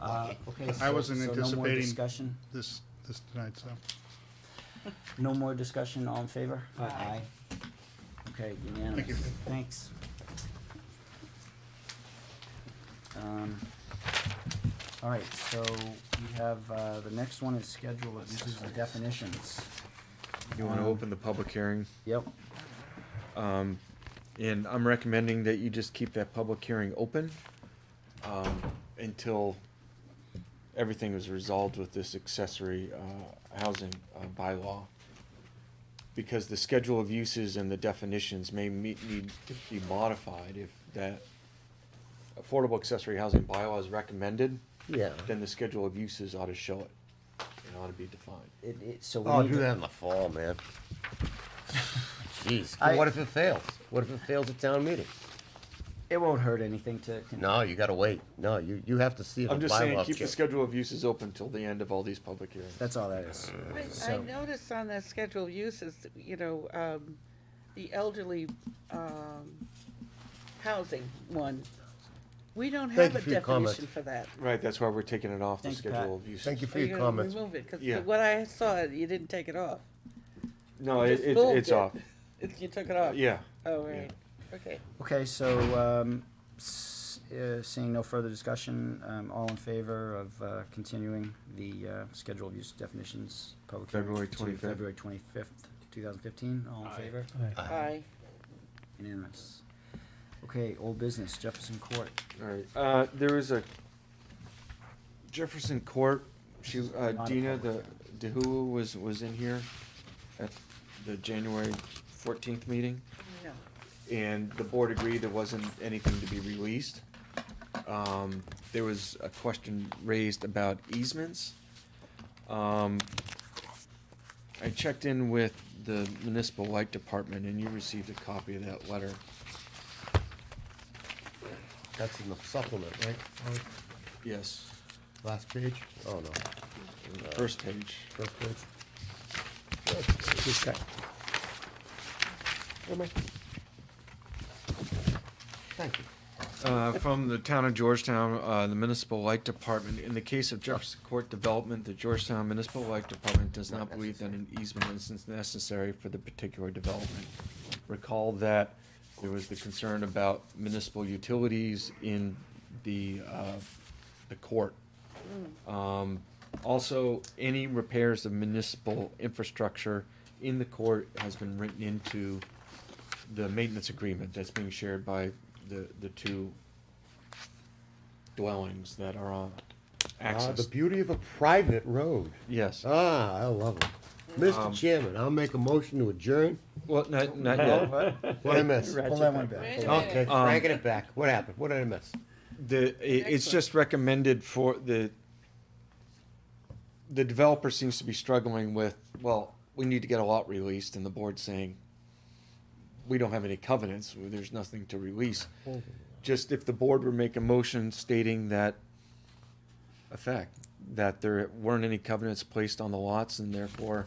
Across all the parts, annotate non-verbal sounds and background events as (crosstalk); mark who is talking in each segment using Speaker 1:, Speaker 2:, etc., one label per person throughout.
Speaker 1: Uh, Okay,
Speaker 2: I
Speaker 1: so,
Speaker 2: wasn't
Speaker 1: so no more
Speaker 2: anticipating-
Speaker 1: discussion,
Speaker 2: this, this tonight, so.
Speaker 1: no more discussion, all in favor?
Speaker 3: Aye.
Speaker 1: Aye. Okay, unanimous,
Speaker 2: you.
Speaker 1: thanks. Um, all right, so we have, uh, the next one is schedule of uses and definitions.
Speaker 4: You want to
Speaker 1: Um,
Speaker 4: open the public hearing,
Speaker 1: Yep,
Speaker 4: um, and I'm recommending that you just keep that public hearing open, um, until everything is resolved with this accessory, uh, housing, uh, bylaw. Because the schedule of uses and the definitions may meet, need to be modified if that affordable accessory housing bylaw is recommended,
Speaker 5: Yeah.
Speaker 4: then the schedule of uses ought to show it. It ought to be defined.
Speaker 1: it, it, so we
Speaker 5: Oh,
Speaker 1: need
Speaker 5: do
Speaker 1: to-
Speaker 5: that in the fall, man. Jeez,
Speaker 1: I-
Speaker 5: what if it fails? What if it fails at town meeting?
Speaker 1: It won't hurt anything to, con-
Speaker 5: No, you gotta wait. No, you, you have to see if the
Speaker 4: I'm just saying,
Speaker 5: bylaws
Speaker 4: keep the
Speaker 5: change.
Speaker 4: schedule of uses open till the end of all these public hearings.
Speaker 1: that's all that is.
Speaker 3: I, I
Speaker 1: So-
Speaker 3: noticed on that schedule of uses, you know, um, the elderly, um, housing one. We don't
Speaker 5: Thank
Speaker 3: have
Speaker 5: you
Speaker 3: a
Speaker 5: for your comment.
Speaker 3: definition for that.
Speaker 4: Right, that's why we're taking it off the
Speaker 1: Thank you,
Speaker 4: schedule
Speaker 1: Pat.
Speaker 4: of uses.
Speaker 5: Thank you for
Speaker 3: Are you
Speaker 5: your
Speaker 3: gonna
Speaker 5: comments.
Speaker 3: Remove it, cause
Speaker 4: Yeah.
Speaker 3: what I saw, you didn't take it off. (laughs)
Speaker 4: No,
Speaker 3: You
Speaker 4: it,
Speaker 3: just
Speaker 4: it,
Speaker 3: moved
Speaker 4: it's
Speaker 3: it.
Speaker 4: off,
Speaker 3: It- You took it off?
Speaker 4: yeah.
Speaker 3: Oh, right, okay.
Speaker 1: Okay, so, um, s- uh, seeing no further discussion, um, all in favor of, uh, continuing the, uh, schedule of use definitions, public hearing
Speaker 4: February
Speaker 1: to
Speaker 4: 25th.
Speaker 1: February twenty-fifth, two thousand fifteen, all in favor?
Speaker 5: Ah,
Speaker 3: Aye.
Speaker 1: Unanimous. Okay, old business, Jefferson Court.
Speaker 4: Alright, uh, there was a Jefferson Court, she, uh,
Speaker 1: Not a
Speaker 4: Dina, the,
Speaker 1: public
Speaker 4: DeHuu was, was in here at the January fourteenth meeting.
Speaker 3: No.
Speaker 4: (laughs) and the board agreed there wasn't anything to be released. Um, there was a question raised about easements. Um, I checked in with the municipal light department and you received a copy of that letter.
Speaker 5: That's in the supplement, right?
Speaker 4: Yes,
Speaker 5: Last page? Oh, no,
Speaker 4: first page.
Speaker 5: first page. Just check. Where am I? Thank you.
Speaker 4: Uh, from the town of Georgetown, uh, the municipal light department, in the case of Jefferson Court development, the Georgetown Municipal Light Department does not believe that an easement is necessary for the particular development. Recall that there was the concern about municipal utilities in the, uh, the court. Um, also, any repairs of municipal infrastructure in the court has been written into the maintenance agreement that's being shared by the, the two dwellings that are on
Speaker 5: Ah, the
Speaker 4: access.
Speaker 5: beauty of a private road.
Speaker 4: Yes,
Speaker 5: Ah, I love it. Mr.
Speaker 4: Um,
Speaker 5: Chairman, I'll make a motion to adjourn.
Speaker 4: well, not, not
Speaker 5: Oh,
Speaker 4: yet.
Speaker 5: What did I miss?
Speaker 1: Pull that one back.
Speaker 5: Okay,
Speaker 4: Um,
Speaker 5: cranking it back. What happened? What did I miss?
Speaker 4: The, i- it's just recommended for the, the developer seems to be struggling with, well, we need to get a lot released and the board's saying, we don't have any covenants, there's nothing to release. Just if the board would make a motion stating that effect, that there weren't any covenants placed on the lots and therefore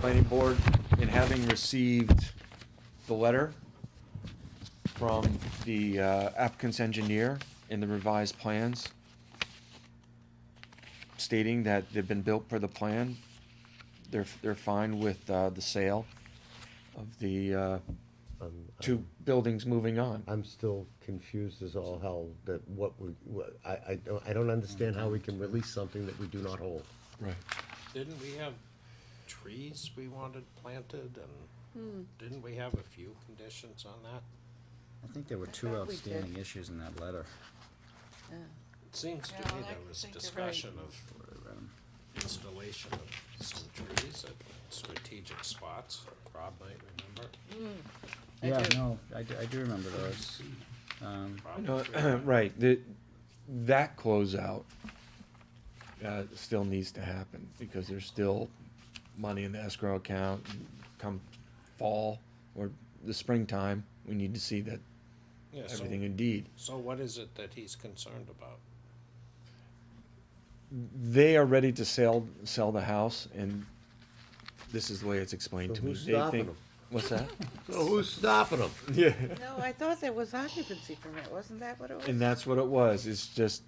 Speaker 4: planning board, in having received the letter from the uh, applicant's engineer in the revised plans stating that they've been built per the plan, they're, they're fine with uh, the sale of the uh,
Speaker 5: Um,
Speaker 4: two buildings moving on.
Speaker 5: I'm still confused as all hell that what we, what, I, I, don't- I don't understand how we can release something that we do not hold.
Speaker 4: Right.
Speaker 6: Didn't we have trees we wanted planted and didn't we have a few conditions on that?
Speaker 1: I think there were two
Speaker 3: thought we did.
Speaker 1: outstanding issues in that letter.
Speaker 6: It seems to
Speaker 3: Yeah, I
Speaker 6: me there
Speaker 3: like to
Speaker 6: was
Speaker 3: think you're right.
Speaker 6: discussion of installation of some trees at strategic spots, Rob might remember.
Speaker 3: I
Speaker 1: Yeah,
Speaker 3: do.
Speaker 1: no, I do, I do remember those. Um,
Speaker 6: Rob
Speaker 4: No,
Speaker 6: was right.
Speaker 4: (clears throat) right, the, that closeout, uh, still needs to happen, because there's still money in the escrow account, come fall, or the springtime, we need to see that,
Speaker 6: (coughs) Yeah, so,
Speaker 4: everything indeed.
Speaker 6: so what is it that he's concerned about?
Speaker 4: They are ready to sell, sell the house, and this is the way it's explained
Speaker 5: So
Speaker 4: to me.
Speaker 5: who's
Speaker 4: They
Speaker 5: stopping
Speaker 4: think-
Speaker 5: them? (laughs)
Speaker 4: What's that?
Speaker 5: So who's stopping them?
Speaker 4: Yeah.
Speaker 3: No, I thought there was occupancy permit, wasn't that what it was?
Speaker 4: And that's what it was, it's just,